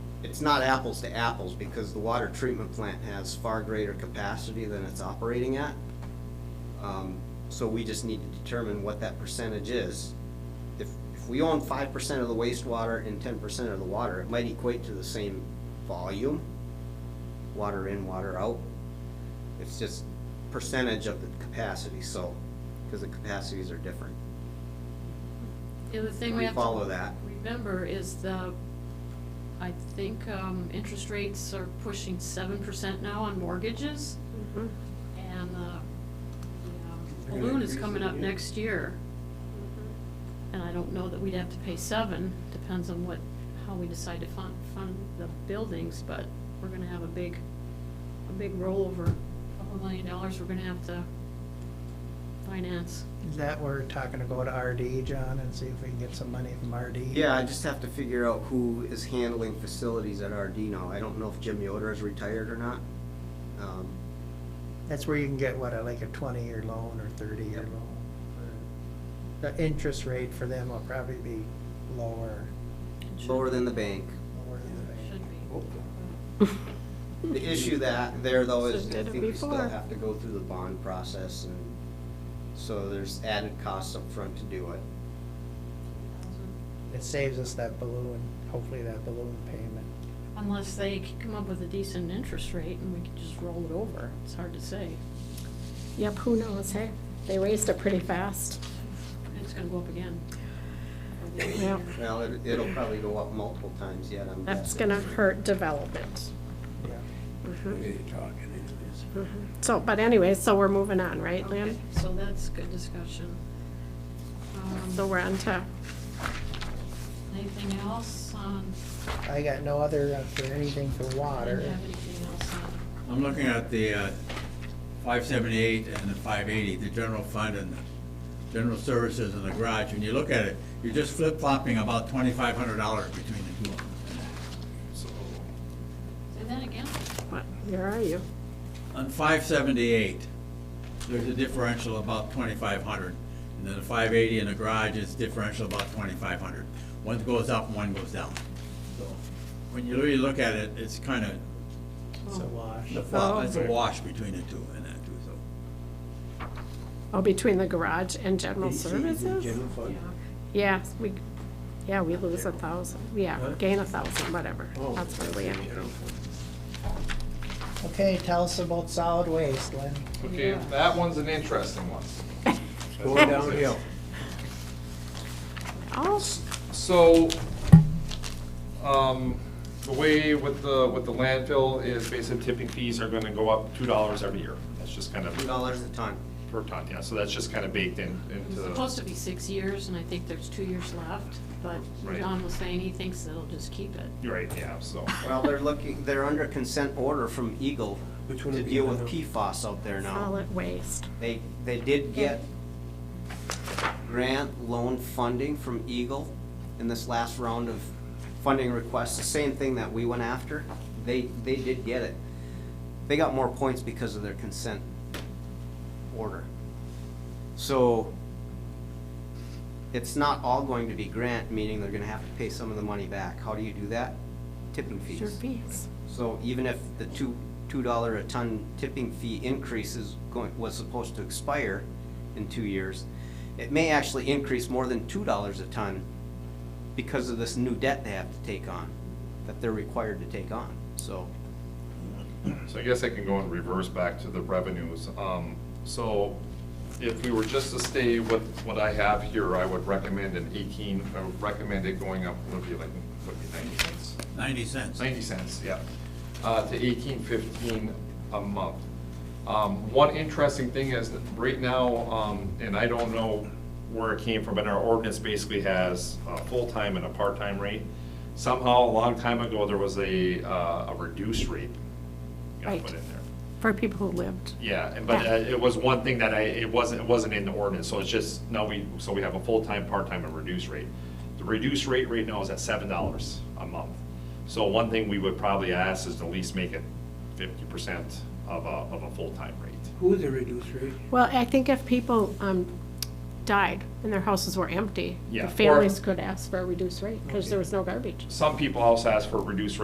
it's not apples to apples because the water treatment plant has far greater capacity than it's operating at. Um, So we just need to determine what that percentage is. If, if we own five percent of the wastewater and ten percent of the water, it might equate to the same volume, water in, water out. It's just percentage of the capacity, so, because the capacities are different. The other thing we We have to. follow that. Remember is the, I think, um, interest rates are pushing seven percent now on mortgages. Mm-hmm. And, uh, the They're um, gonna balloon is increase it coming up again. next year. And I don't know that we'd have to pay seven, depends on what, how we decide to fund, fund the buildings, but we're gonna have a big, a big rollover, a couple million dollars we're gonna have to finance. Is that we're talking to go to RD, John, and see if we can get some money from RD? Yeah, I just have to figure out who is handling facilities at RD now. I don't know if Jim Yoder is retired or not. Um, That's where you can get, what, like a twenty-year loan or thirty-year Yep. loan. The interest rate for them will probably be lower, Lower than the bank. lower than the bank. Should be. Mm-hmm. The issue that, there though is, Hmm. Just I did it think we still before. have to go through the bond process and so there's added costs up front to do it. uh, It saves us that balloon, hopefully that balloon payment. Unless they c- come up with a decent interest rate and we can just roll it over, it's hard to say. Yep, who knows, hey? They raised it pretty fast. It's gonna go up again. Yeah. Well, it- it'll probably go up multiple times yet, I'm guessing. That's gonna hurt development. Yeah. Mhm, Really talking into this. mhm. So, but anyway, so we're moving on, right, Lynn? Okay, So that's good discussion. Um, So we're on to, Anything else on? I got no other uh, for anything for Do you water. have anything else on? I'm looking at the uh, 578 and the 580, the general fund and the general services and the garage. When you look at it, you're just flip-flopping about $2,500 between the two of them. Say that again? what, where are you? On 578, there's a differential about 2,500. And then the 580 and the garage is differential about 2,500. One goes up and one goes down. So When you really look at it, it's kind of, It's a wash. the flop- Oh. it's a wash between the two and that too, so. Oh, between the garage and general services? Yeah, we, yeah, we lose a thousand, yeah, Huh? gain a thousand, whatever. That's where we are. Okay, tell us about solid waste, Lynn. Okay, Yeah. that one's an interesting one. Going downhill. Oh, So, um, the way with the, with the landfill is basically tipping fees are gonna go up two dollars every year. That's just kind Two of dollars a ton. per ton, yeah, so that's just kind of baked in, It's into, supposed to be six years and I think there's two years left, but Right. John was saying he thinks they'll just keep it. you're right, yeah, so. Well, they're looking, they're under consent order from Eagle Which one to would be deal with under? PFAS out there now. solid waste. They, they did get grant loan funding from Eagle in this last round of funding requests, the same thing that we went after. They, they did get it. They got more points because of their consent order. So it's not all going to be grant, meaning they're gonna have to pay some of the money back. How do you do that? Tipping fees. Sure fees. So even if the two, two dollar a ton tipping fee increase is going, was supposed to expire in two years, it may actually increase more than two dollars a ton because of this new debt they have to take on, that they're required to take on, so. So I guess I can go in reverse back to the revenues. Um, So if we were just to stay with what I have here, I would recommend an eighteen, I would recommend it going up, would be like, would be ninety cents? 90 cents. Ninety cents, yeah, uh, to eighteen fifteen a month. Um, one interesting thing is that right now, um, and I don't know where it came from, but our ordinance basically has a full-time and a part-time rate. Somehow, a long time ago, there was a, uh, a reduced rate got Right. put in there. For people who lived. Yeah, and- but uh, it was one thing that I, it wasn't, it wasn't in the ordinance, so it's just, now we, so we have a full-time, part-time, and reduced rate. The reduced rate right now is at seven dollars a month. So one thing we would probably ask is to at least make it fifty percent of a, of a full-time rate. Who is the reduced rate? Well, I think if people um, died and their houses were empty, Yeah, the or- families could ask for a reduced rate because there was no garbage. Some people also ask for a reduced rate